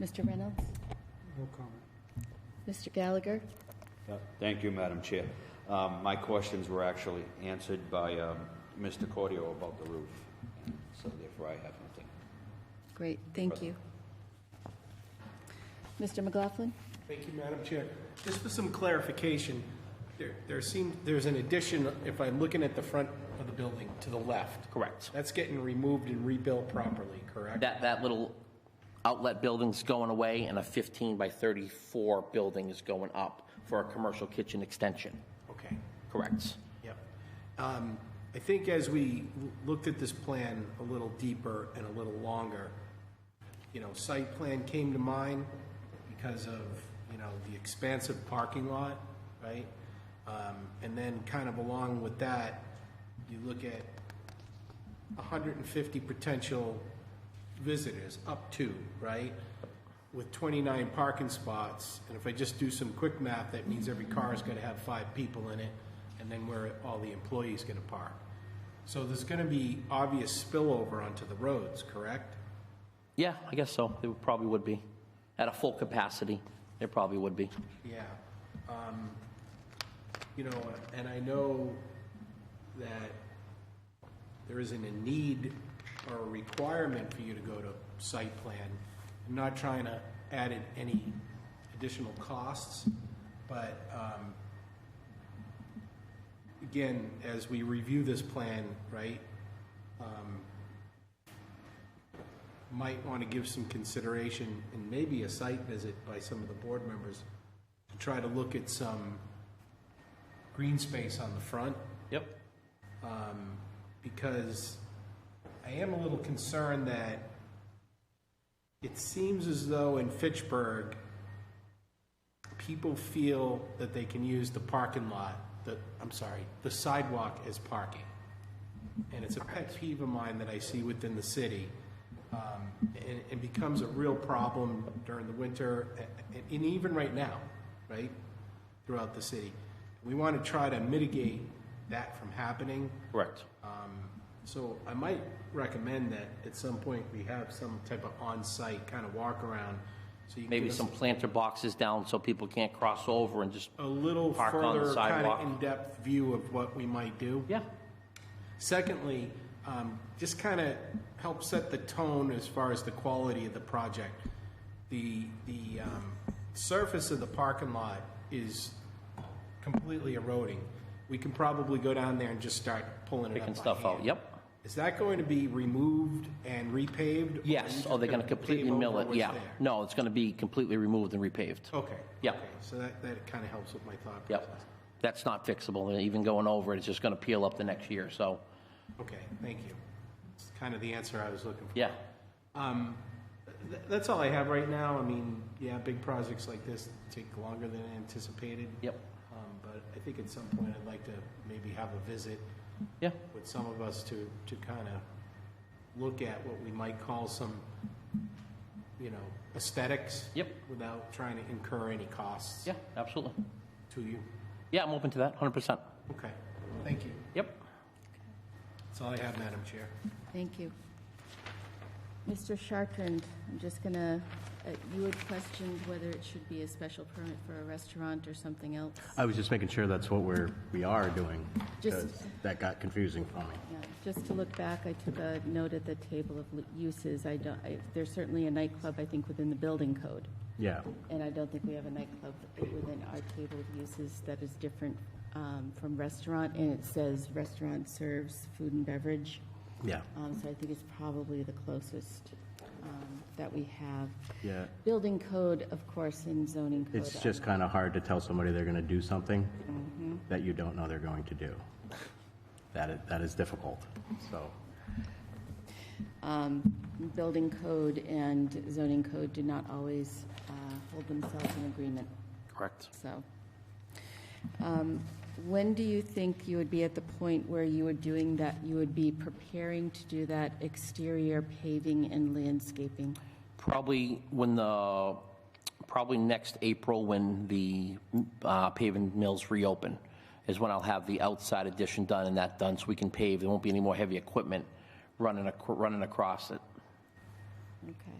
Mr. Reynolds? No comment. Mr. Gallagher? Uh, Thank you, Madam Chair. Um, My questions were actually answered by um, Mr. Cordio about the roof, and so therefore I have nothing. Great, thank you. Mr. McLaughlin? Thank you, Madam Chair. Just for some clarification, there, there seems, there's an addition, if I'm looking at the front of the building, to the left. Correct. That's getting removed and rebuilt properly, correct? That, that little outlet building's going away, and a 15 by 34 building is going up for a commercial kitchen extension. Okay, Correct. yep. Um, I think as we l- looked at this plan a little deeper and a little longer, you know, site plan came to mind because of, you know, the expansive parking lot, right? Um, and then kind of along with that, you look at 150 potential visitors, up to, right? With 29 parking spots, and if I just do some quick math, that means every car is gonna have five people in it, and then where all the employees gonna park. So there's gonna be obvious spillover onto the roads, correct? Yeah, I guess so. There probably would be. At a full capacity, there probably would be. Yeah. Um, You know, and I know that there isn't a need or a requirement for you to go to site plan. I'm not trying to add in any additional costs, but um, again, as we review this plan, right, um, might want to give some consideration and maybe a site visit by some of the board members to try to look at some green space on the front Yep. because I am a little concerned that it seems as though in Fitchburg, people feel that they can use the parking lot, the, I'm sorry, the sidewalk as parking. And it's a pet peeve of mine that I see within the city. Um, and it becomes a real problem during the winter a- a- and even right now, right? Throughout the city. We want to try to mitigate that from happening. Correct. Um, So I might recommend that at some point we have some type of on-site kind of walk around. so you can Maybe give us some planter boxes down so people can't cross over and just, A little Park on the further kind sidewalk. of in-depth view of what we might do. yeah, Secondly, um, just kind of help set the tone as far as the quality of the project. The, the um, surface of the parking lot is completely eroding. We can probably go down there and just start pulling it up picking by stuff out. hand. Yep. Is that going to be removed and repaved? or are you Yes. just Oh, they're going to gonna completely pave mill over it. what's Yeah. there? No, it's going to be completely removed and repaved. Okay. Yeah. okay. So that, that kind of helps with my thought process. Yep. That's not fixable. And even going over, it, it's just going to peel up the next year. So, Okay, thank you. It's kind of the answer I was looking for. yeah. Um, th- that's all I have right now. I mean, yeah, big projects like this take longer than anticipated. Yep. Um, but I think at some point I'd like to maybe have a visit Yeah. with some of us to, to kind of look at what we might call some, you know, aesthetics. Yep. Without trying to incur any costs. Yeah, absolutely. To you. Yeah, I'm open to that, 100%. Okay, thank you. Yep. That's all I have, Madam Chair. Thank you. Mr. Chartrand, I'm just gonna, uh, you had questioned whether it should be a special permit for a restaurant or something else. I was just making sure that's what we're, we are doing. Just- 'cause That got confusing for me. Yeah, Just to look back, I took a note at the table of l- uses. I don't, I- there's certainly a nightclub, I think, within the building code. Yeah, And I don't think we have a nightclub within our table of uses that is different um, from restaurant. And it says restaurant serves food and beverage. yeah, Um, So I think it's probably the closest um, that we have. yeah. Building code, of course, and zoning code. It's just kind of hard to tell somebody they're going to do something that you don't know they're going to do. That is, that is difficult, so. um, Building code and zoning code do not always uh, hold themselves in agreement, Correct. so. um, When do you think you would be at the point where you are doing that, you would be preparing to do that exterior paving and landscaping? Probably when the, probably next April, when the uh, paving mills reopen, is when I'll have the outside addition done and that done, so we can pave. There won't be any more heavy equipment running, ac- running across it. Okay.